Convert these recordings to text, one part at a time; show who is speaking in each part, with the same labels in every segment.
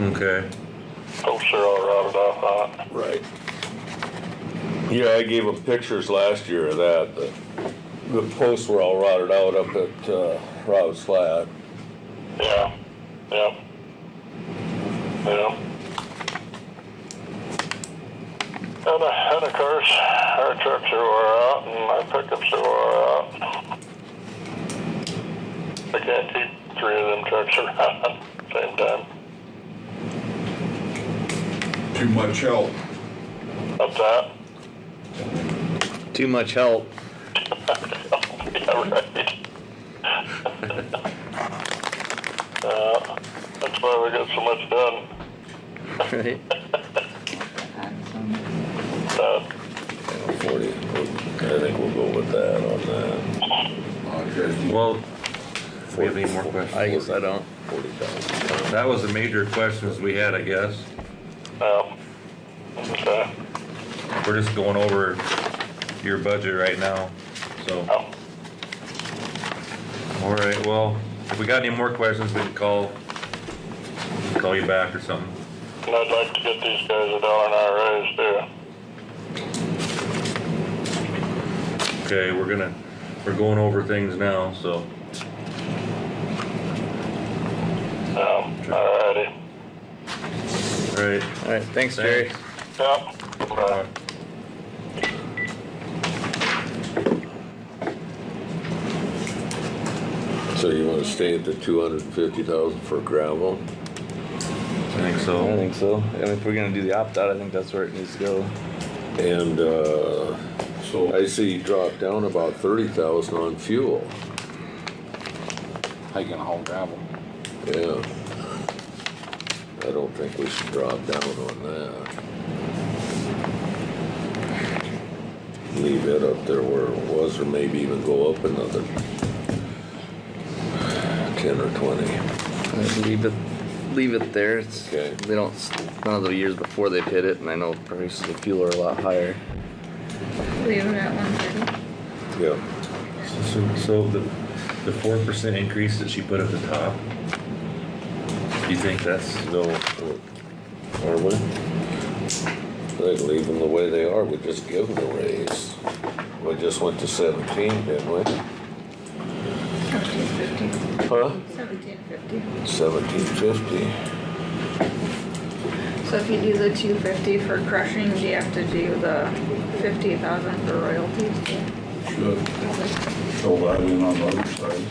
Speaker 1: Okay.
Speaker 2: Folks are all routed off that.
Speaker 3: Right. Yeah, I gave them pictures last year of that. The, the posts were all rotted out up at, uh, Rob's Flat.
Speaker 2: Yeah, yeah. Yeah. And, uh, and of course, our trucks are wore out and our pickups are wore out. I can't keep three of them trucks around at the same time.
Speaker 4: Too much help.
Speaker 2: Up that.
Speaker 5: Too much help.
Speaker 2: Yeah, right. uh, that's why we got so much done.
Speaker 5: Right?
Speaker 2: Uh,
Speaker 3: Forty, I think we'll go with that on that.
Speaker 4: Okay.
Speaker 1: Well, do we have any more
Speaker 5: I
Speaker 1: questions?
Speaker 5: guess I don't.
Speaker 3: Forty thousand.
Speaker 1: That was the major questions we had, I guess.
Speaker 2: no. Okay.
Speaker 1: We're just going over your budget right now, so.
Speaker 2: No.
Speaker 1: All right, well, if we got any more questions, we can call, call you back or something.
Speaker 2: And I'd like to get these guys a dollar an hour raise too.
Speaker 1: Okay, we're gonna, we're going over things now, so.
Speaker 2: Um, alrighty.
Speaker 1: All right.
Speaker 5: All right, thanks, Jerry.
Speaker 2: Yep. Uh,
Speaker 3: So you wanna stay at the two hundred and fifty thousand for gravel?
Speaker 1: I think
Speaker 5: I don't
Speaker 1: so.
Speaker 5: think so. And if we're gonna do the opt-out, I think that's where it needs to go.
Speaker 3: And, uh,
Speaker 4: So,
Speaker 3: I see you dropped down about thirty thousand on fuel.
Speaker 6: How you gonna haul gravel?
Speaker 3: Yeah. I don't think we should drop down on that. Leave it up there where it was, or maybe even go up another ten or twenty.
Speaker 5: I Leave it, leave it there. It's,
Speaker 3: Okay.
Speaker 5: they don't, s- none of the years before they've hit it, and I know prices of fuel are a lot higher.
Speaker 7: Leave it at one thirty.
Speaker 3: Yeah.
Speaker 1: So- So the, the four percent increase that she put at the top, you think that's,
Speaker 3: No, are we? They leave them the way they are, we just give them a raise. We just went to seventeen, didn't we?
Speaker 7: Seventeen fifty.
Speaker 3: Huh?
Speaker 7: Seventeen fifty.
Speaker 3: Seventeen fifty.
Speaker 7: So if you do the two fifty for crushing, do you have to do the fifty thousand for royalties?
Speaker 4: should, throw that in on the other side.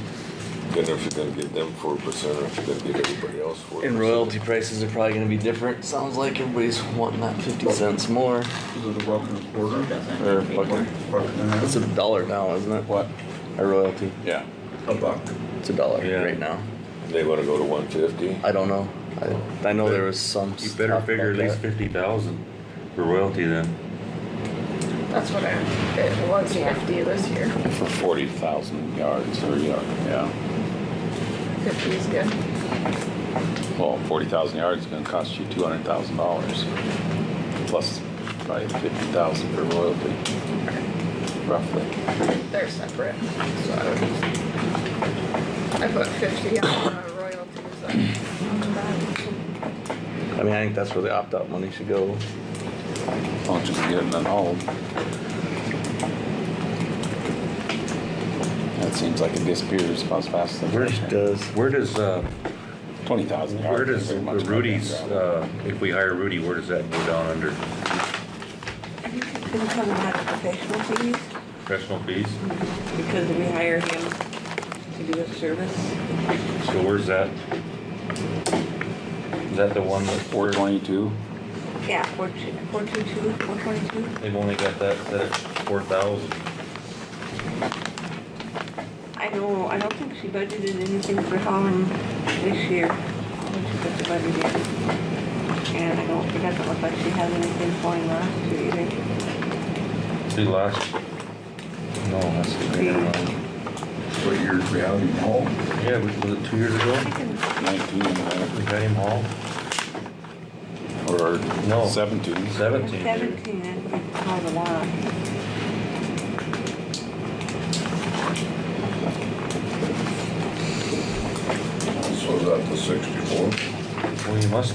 Speaker 3: Then if you're gonna get them four percent, or if you're gonna get everybody else four percent.
Speaker 5: And royalty prices are probably gonna be different. Sounds like everybody's wanting that fifty cents more.
Speaker 4: Is it a buck and a quarter?
Speaker 5: Or a buck and-
Speaker 4: Buck and a
Speaker 5: It's
Speaker 4: half?
Speaker 5: a dollar now, isn't it?
Speaker 6: What?
Speaker 5: A royalty.
Speaker 6: Yeah.
Speaker 4: A buck.
Speaker 5: It's a dollar
Speaker 1: Yeah.
Speaker 5: right now.
Speaker 3: They wanna go to one fifty?
Speaker 5: I don't know. I, I know there was some.
Speaker 1: you better
Speaker 5: stuff
Speaker 1: figure at
Speaker 5: about
Speaker 1: least
Speaker 5: that.
Speaker 1: fifty thousand for royalty then.
Speaker 7: That's what I, it was fifty this year.
Speaker 6: For forty thousand yards or yard, yeah.
Speaker 7: Fifty is good.
Speaker 6: Well, forty thousand yards is gonna cost you two hundred thousand dollars. Plus probably fifty thousand for royalty, roughly.
Speaker 7: They're separate, so I would just. I put fifty on the royalties and.
Speaker 5: I mean, I think that's where the opt-out money should go.
Speaker 6: As long as you can get it and then hauled. That seems like it disappears about as fast as.
Speaker 1: Where
Speaker 5: does.
Speaker 1: Where does, uh,
Speaker 6: Twenty thousand yards.
Speaker 1: where does
Speaker 6: is pretty much
Speaker 1: the
Speaker 6: about that
Speaker 1: Rudy's,
Speaker 6: gravel.
Speaker 1: uh, if we hire Rudy, where does that go down under?
Speaker 8: Can you tell him how to professional fees?
Speaker 1: Professional fees?
Speaker 8: Because we hire him to do a service.
Speaker 1: So where's that? Is that the one that
Speaker 6: Four twenty-two,
Speaker 8: Yeah, four two, four two two, four twenty-two.
Speaker 1: They've only got that, that four thousand.
Speaker 8: I don't, I don't think she budgeted anything for Holland this year. When she put the budget in. And I don't, it doesn't look like she has anything for him last year either.
Speaker 1: See last? No, that's, never mind.
Speaker 4: What years we have him home?
Speaker 1: yeah, was was it two years ago?
Speaker 8: I can,
Speaker 6: nineteen, uh,
Speaker 1: We got him all? No.
Speaker 6: or seventeen.
Speaker 1: Seventeen. dude.
Speaker 8: seventeen, that's been called a while.
Speaker 4: So is that the sixty-four?
Speaker 1: Well, you must